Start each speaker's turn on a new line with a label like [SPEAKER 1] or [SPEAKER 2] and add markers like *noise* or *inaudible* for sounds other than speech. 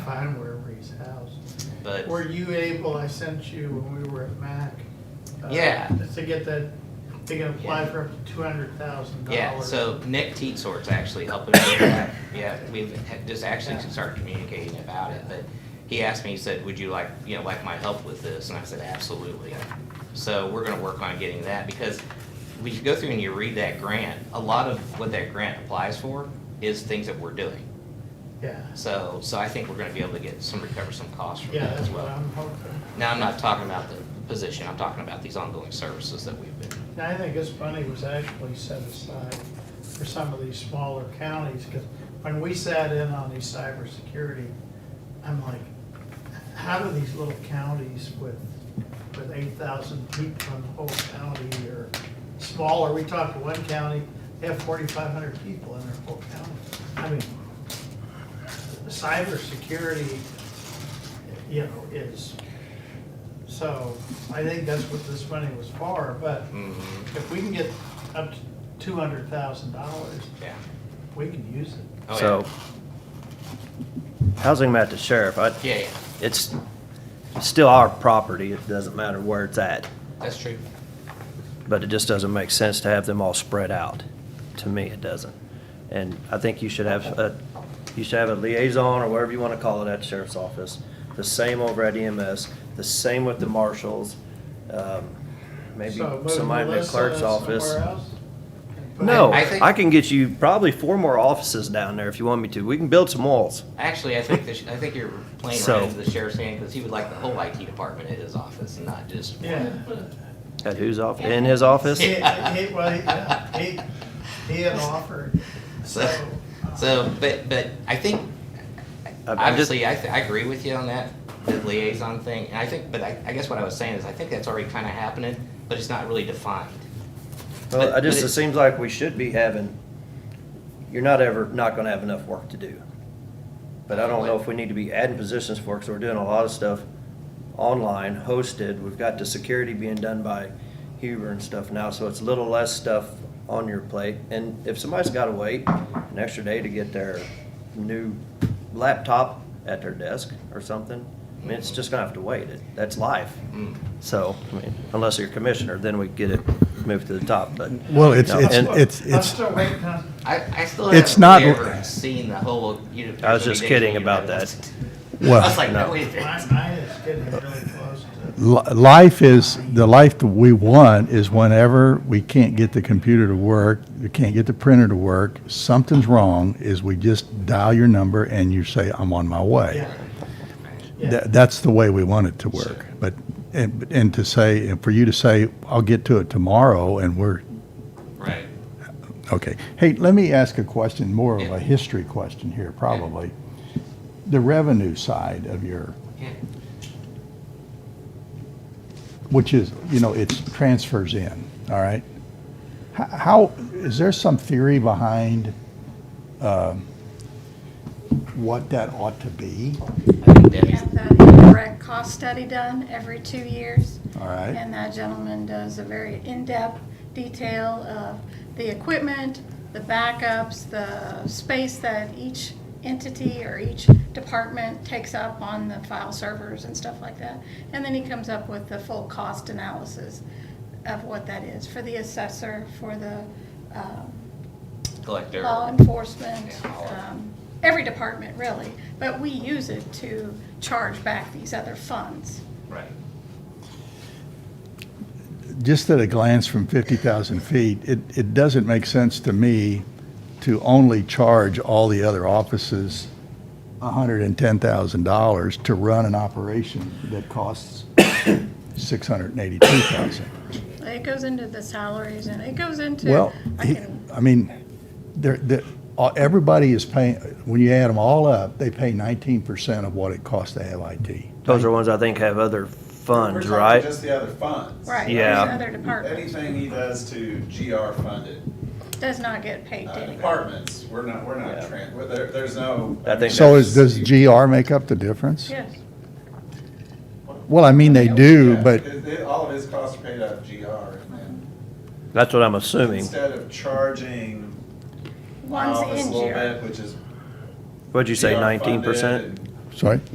[SPEAKER 1] find wherever he's housed.
[SPEAKER 2] but
[SPEAKER 1] Were you able, I sent you when we were at MAC. uh,
[SPEAKER 2] Yeah.
[SPEAKER 1] To get that, they can apply for up to two hundred thousand dollars.
[SPEAKER 2] yeah, so Nick Teetsort's actually helping me. with that. Yeah, we've had- just actually started communicating about it, but he asked me, he said, would you like, you know, like my help with this? And I said, absolutely. So we're gonna work on getting that, because when you go through and you read that grant, a lot of what that grant applies for is things that we're doing.
[SPEAKER 1] Yeah,
[SPEAKER 2] So, so I think we're gonna be able to get some, recover some costs from
[SPEAKER 1] yeah,
[SPEAKER 2] that
[SPEAKER 1] that's
[SPEAKER 2] as
[SPEAKER 1] what
[SPEAKER 2] well.
[SPEAKER 1] I'm hoping.
[SPEAKER 2] Now, I'm not talking about the position, I'm talking about these ongoing services that we've been,
[SPEAKER 1] And I think this money was actually set aside for some of these smaller counties, because when we sat in on these cybersecurity, I'm like, how do these little counties with, with eight thousand people in the whole county or smaller, we talked to one county, they have forty-five hundred people in their whole county. I mean, cybersecurity, you know, is, so I think that's what this money was for, but
[SPEAKER 2] Mhm,
[SPEAKER 3] Mm-hmm.
[SPEAKER 1] if we can get up to two hundred thousand dollars,
[SPEAKER 2] yeah.
[SPEAKER 1] we can use it.
[SPEAKER 2] Oh, yeah.
[SPEAKER 3] So, housing at the sheriff, I,
[SPEAKER 2] Yeah, yeah,
[SPEAKER 3] it's still our property, it doesn't matter where it's at,
[SPEAKER 2] that's true.
[SPEAKER 3] but it just doesn't make sense to have them all spread out. To me, it doesn't. And I think you should have a, you should have a liaison, or whatever you wanna call it, at the sheriff's office, the same over at EMS, the same with the marshals, um, maybe
[SPEAKER 1] So move
[SPEAKER 3] somebody in the
[SPEAKER 1] Melissa
[SPEAKER 3] clerk's office.
[SPEAKER 1] somewhere else?
[SPEAKER 3] No,
[SPEAKER 2] I think-
[SPEAKER 3] I can get you probably four more offices down there if you want me to. We can build some walls.
[SPEAKER 2] Actually, I think, the sh- I think you're playing
[SPEAKER 3] So-
[SPEAKER 2] right into the sheriff's hand, because he would like the whole IT department at his office and not just
[SPEAKER 1] Yeah.
[SPEAKER 2] one.
[SPEAKER 3] At whose office? In his *laughs* office?
[SPEAKER 1] He, he, well, he- yeah, he, he had offered, so.
[SPEAKER 3] *laughs*
[SPEAKER 1] uh,
[SPEAKER 2] So, so, but, but I think,
[SPEAKER 3] I'm
[SPEAKER 2] obviously, I, th- I agree with you on that, the liaison thing, and I think, but I, I guess what I was saying is, I think that's already kind of happening, but it's not really defined.
[SPEAKER 3] Well, I
[SPEAKER 2] But-
[SPEAKER 3] just,
[SPEAKER 2] but
[SPEAKER 3] it
[SPEAKER 2] it-
[SPEAKER 3] seems like we should be having, you're not ever, not gonna have enough work to do. But I don't know if we need to be adding positions for, because we're doing a lot of stuff online, hosted. We've got the security being done by Huber and stuff now, so it's a little less stuff on your plate. And if somebody's gotta wait an extra day to get their new laptop at their desk or something, I mean, it's just gonna have to wait. It- That's life.
[SPEAKER 2] Mm.
[SPEAKER 3] So, I mean, unless you're a commissioner, then we get it moved to the top, but.
[SPEAKER 4] Well, it's-
[SPEAKER 3] no,
[SPEAKER 4] it's-
[SPEAKER 3] and-
[SPEAKER 1] I'm
[SPEAKER 4] it's-
[SPEAKER 1] still waiting on,
[SPEAKER 2] I, I still
[SPEAKER 4] It's
[SPEAKER 2] haven't
[SPEAKER 4] not-
[SPEAKER 2] really ever seen the whole. you know,
[SPEAKER 3] I was just kidding
[SPEAKER 2] United
[SPEAKER 3] about
[SPEAKER 2] States. I was
[SPEAKER 4] Well,
[SPEAKER 2] like, no,
[SPEAKER 3] no.
[SPEAKER 2] wait a minute.
[SPEAKER 1] my, mine is getting really close to,
[SPEAKER 4] li- life is, the life that we want is whenever we can't get the computer to work, we can't get the printer to work, something's wrong, is we just dial your number and you say, I'm on my way.
[SPEAKER 1] yeah.
[SPEAKER 4] Tha-
[SPEAKER 1] Yeah,
[SPEAKER 4] That's the way we want it to work. But, and, and to say, and for you to say, I'll get to it tomorrow and we're,
[SPEAKER 2] Right.
[SPEAKER 4] Okay. Hey, let me ask a question, more of
[SPEAKER 2] Yeah.
[SPEAKER 4] a history question here, probably. The revenue side of your,
[SPEAKER 2] Yeah.
[SPEAKER 4] which is, you know, it's transfers in, all right? H- How, is there some theory behind um, what that ought to be?
[SPEAKER 2] I think
[SPEAKER 5] We
[SPEAKER 2] Debbie's-
[SPEAKER 5] have that indirect cost study done every two years.
[SPEAKER 4] All right?
[SPEAKER 5] And that gentleman does a very in-depth detail of the equipment, the backups, the space that each entity or each department takes up on the file servers and stuff like that. And then he comes up with the full cost analysis of what that is for the assessor, for the um,
[SPEAKER 2] collector.
[SPEAKER 5] law enforcement,
[SPEAKER 2] Yeah, all of it.
[SPEAKER 5] um, every department really, but we use it to charge back these other funds.
[SPEAKER 2] Right.
[SPEAKER 4] Just at a glance from 50,000 feet, it, it doesn't make sense to me to only charge all the other offices $110,000 to run an operation that costs 682,000.
[SPEAKER 5] It goes into the salaries and it goes into.
[SPEAKER 4] Well,
[SPEAKER 5] I
[SPEAKER 4] he-
[SPEAKER 5] can-
[SPEAKER 4] I mean, there, there, all- everybody is paying, when you add them all up, they pay 19% of what it costs to have IT.
[SPEAKER 3] Those are ones I think have other
[SPEAKER 6] We're
[SPEAKER 3] funds,
[SPEAKER 6] talking
[SPEAKER 3] right?
[SPEAKER 6] Just the other funds.
[SPEAKER 5] Right, there's
[SPEAKER 3] Yeah.
[SPEAKER 5] other departments,
[SPEAKER 6] Anything he does to GR funded
[SPEAKER 5] does not get paid to
[SPEAKER 6] uh,
[SPEAKER 5] anybody.
[SPEAKER 6] departments, we're not, we're not,
[SPEAKER 3] Yeah.
[SPEAKER 6] tran- we're- there, there's no.
[SPEAKER 3] I think
[SPEAKER 4] So is, does GR make up the difference?
[SPEAKER 5] Yes,
[SPEAKER 4] Well, I mean, they do,
[SPEAKER 6] Yeah,
[SPEAKER 4] but
[SPEAKER 6] it- it- All of his costs are paid out of GR and then
[SPEAKER 3] That's what I'm assuming.
[SPEAKER 6] instead of charging my
[SPEAKER 5] one's
[SPEAKER 6] office a
[SPEAKER 5] in
[SPEAKER 6] little
[SPEAKER 5] GR.
[SPEAKER 6] bit, which is.
[SPEAKER 3] What'd you say,
[SPEAKER 6] GR funded
[SPEAKER 3] nineteen percent?
[SPEAKER 6] and
[SPEAKER 4] sorry?